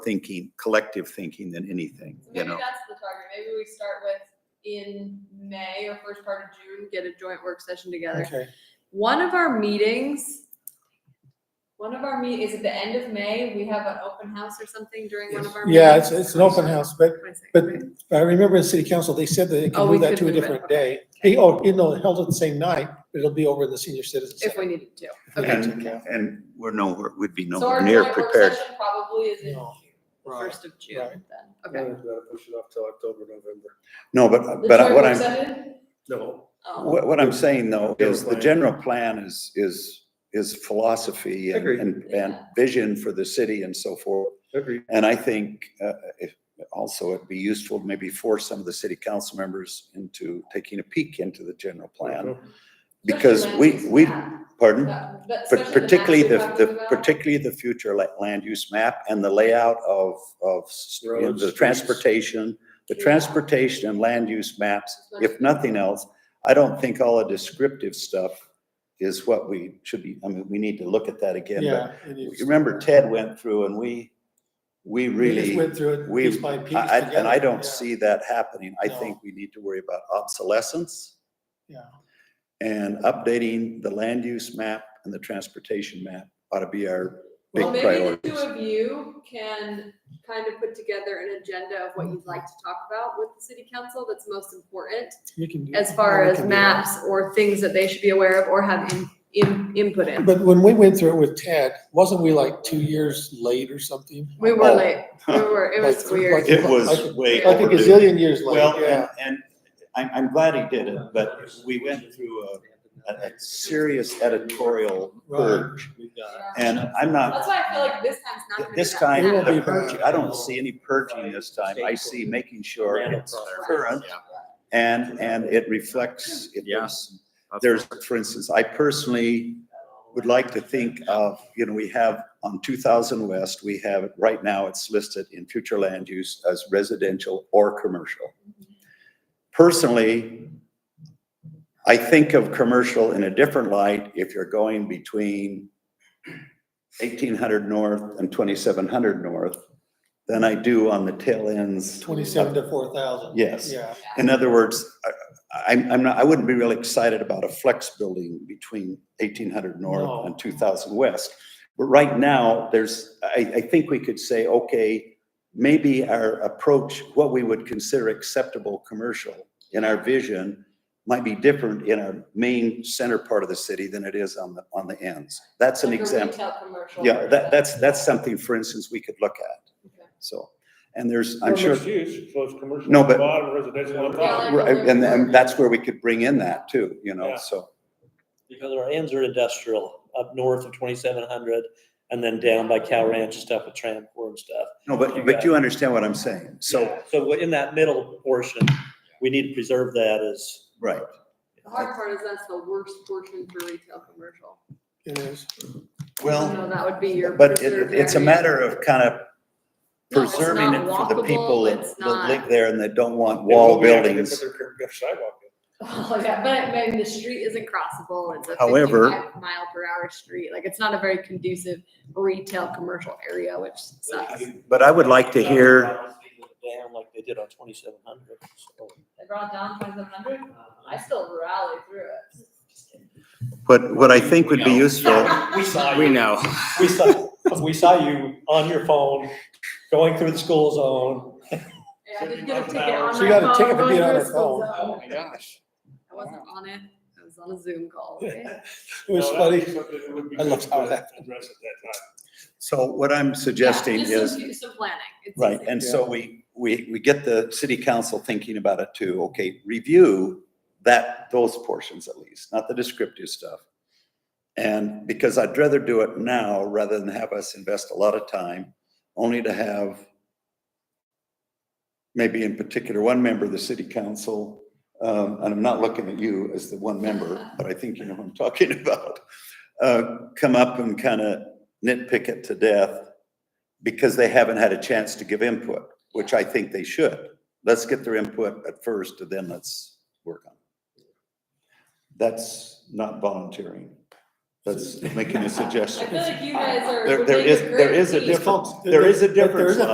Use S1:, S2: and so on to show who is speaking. S1: thinking, collective thinking than anything,
S2: So
S1: you
S2: Maybe
S1: know?
S2: that's the target. Maybe we start with in May or first part of June, get a joint work session together.
S3: Okay,
S2: One of our meetings, one of our meet, is at the end of May, we have an open house or something during one of our meetings?
S3: yeah, it's, it's an open house, but
S2: Wait a second,
S3: but-
S2: wait.
S3: I remember in city council, they said that they
S2: Oh,
S3: can
S2: we
S3: move that
S2: could
S3: to a
S2: move it,
S3: different
S2: okay.
S3: day. Hey, oh, you know, held at the same night, but it'll be over in the senior citizen
S2: If
S3: center.
S2: we needed to. Okay.
S1: And, and we're nowhere, we'd be
S2: So our
S1: nowhere near
S2: joint work
S1: prepared.
S2: session probably is in June,
S3: No,
S2: the
S3: right,
S2: first of June
S3: right.
S2: then. Okay.
S4: Push it off till October, November.
S1: No,
S2: The
S3: Uh,
S1: but, but
S2: joint
S1: what
S2: work
S1: I'm,
S2: session?
S4: No.
S2: Oh.
S1: what, what I'm saying though is the
S4: Different
S1: general plan is, is, is philosophy and,
S4: Agreed.
S1: and and
S2: Yeah.
S1: vision for the city and so forth.
S4: Agreed.
S1: And I think, uh, if, also it'd be useful to maybe force some of the city council members into taking a peek into the general plan. Because
S2: Especially
S1: we,
S2: land use
S1: we,
S2: map.
S1: pardon?
S2: That- that-
S1: But
S2: especially the uh, maps
S1: particularly the,
S2: you're talking
S1: the,
S2: about.
S1: particularly the future la- land use map and the layout of, of s- you know,
S4: Roads,
S1: the
S4: streets.
S1: transportation, the
S2: Yeah.
S1: transportation and land use maps, if nothing else, I don't think all the descriptive stuff is what we should be, I mean, we need to look at that again. but
S3: yeah. it is.
S1: Remember Ted went through and we, we
S3: We just
S1: really.
S3: Went through it
S1: We,
S3: piece by piece.
S1: I- I- and I
S3: together,
S1: don't
S3: yeah,
S1: see that happening. I
S3: No.
S1: think we need to worry about obsolescence
S3: Yeah.
S1: and updating the land use map and the transportation map ought to be our big
S2: Well, maybe the two
S1: priorities.
S2: of you can kind of put together an agenda of what you'd like to talk about with the city council that's most important
S3: You can do-
S2: as far
S3: we
S2: as
S3: can do that.
S2: maps or things that they should be aware of or have in, in, input in.
S3: But when we went through it with Ted, wasn't we like two years late or something?
S2: We
S1: Oh.
S2: were late. We were, it was
S3: Like-
S2: weird.
S3: like-
S1: It was
S3: Like-
S1: way
S3: Like a
S1: overdue.
S3: gazillion years
S1: Well, and,
S3: late, yeah.
S1: and I'm, I'm glad he did it, but we went through a, a, a serious editorial purge. And I'm not,
S2: That's why I feel like this time's not gonna be
S1: this
S2: that
S1: time,
S3: It will
S2: bad.
S3: be
S1: the purging,
S3: bad.
S1: I don't see any purging this time. I see making sure it's current and, and it reflects, it
S4: Yeah.
S1: was there's, for instance, I personally would like to think of, you know, we have on two thousand west, we have, it right now, it's listed in future land use as residential or commercial. Personally, I think of commercial in a different light if you're going between eighteen hundred north and twenty-seven hundred north than I do on the tail ends.
S3: Twenty-seven to four thousand.
S1: Yes.
S3: Yeah,
S1: In other words, I- I'm, I'm not, I wouldn't be really excited about a flex building between eighteen hundred north
S3: No.
S1: and two thousand west. But right now, there's, I, I think we could say, okay, maybe our approach, what we would consider acceptable commercial in our vision might be different in our main center part of the city than it is on the, on the ends. That's an
S2: Like a
S1: example.
S2: retail commercial
S1: Yeah,
S2: versus-
S1: that, that's, that's something, for instance, we could look
S2: Okay.
S1: at. So, and there's, I'm sure.
S5: Use, so it's commercial.
S1: No,
S5: on the
S1: but-
S5: Bottom residential on the
S2: Yeah,
S5: top.
S2: like-
S1: Right, and, and that's where we could bring in that too, you know,
S5: Yeah.
S1: so,
S6: Because our ends are industrial, up north of twenty-seven hundred, and then down by Cow Ranch and stuff with Trampcore and stuff.
S1: no, but, but you understand what I'm saying, so,
S6: So in that middle portion, we need to preserve that as.
S1: right.
S2: The hard part is that's the worst portion for retail commercial.
S3: it is.
S1: Well,
S2: So that would be your.
S1: but it,
S2: preserved
S1: it's a
S2: area.
S1: matter of kind of
S2: No, it's
S1: preserving it
S2: not
S1: for the
S2: walkable,
S1: people that
S2: it's
S1: that live
S2: not-
S1: there and that don't want
S5: Yeah,
S1: wall
S5: we have to put
S1: buildings.
S5: their- their sidewalk in.
S2: Oh, yeah, but I mean, the street isn't crossable. It's a
S1: However-
S2: fifty-five mile per hour street. Like, it's not a very conducive retail commercial area, which sucks.
S1: But I would like to hear,
S6: Down like they did on twenty-seven hundred.
S2: They brought down twenty-seven hundred. I still rally through it.
S1: what, what I think would be useful,
S6: We saw
S4: We
S6: you,
S4: know.
S6: we saw, we saw you on your phone, going through the school zone.
S2: Yeah, I did get a ticket on my phone.
S3: She got a ticket for
S2: going
S3: being on
S2: through
S3: her
S2: a school
S3: phone.
S2: zone.
S4: gosh.
S2: I wasn't on it. I was on a Zoom call. okay?
S3: It was
S5: No,
S3: funny.
S5: that'd be something that would be
S3: I
S5: good
S3: loved how
S5: to
S3: that-
S5: Address at that time.
S1: so what I'm suggesting
S2: Yeah,
S1: is.
S2: just some- Some planning. It's
S1: Right,
S2: easy.
S1: and so we, we, we get the city council thinking about it too, okay, review that, those portions at least, not the descriptive stuff. And because I'd rather do it now rather than have us invest a lot of time, only to have maybe in particular, one member of the city council, um, and I'm not looking at you as the one member, but I think you know what I'm talking about, uh, come up and kind of nitpick it to death because they haven't had a chance to give input, which I think they should. Let's get their input at first and then let's work on it. That's not volunteering. That's making a
S2: I
S1: suggestion.
S2: feel like you guys are.
S1: There,
S2: would
S1: there
S2: make a
S1: is, there
S2: great
S1: is a
S2: team.
S1: difference. There is a
S3: But there
S1: difference.
S3: is a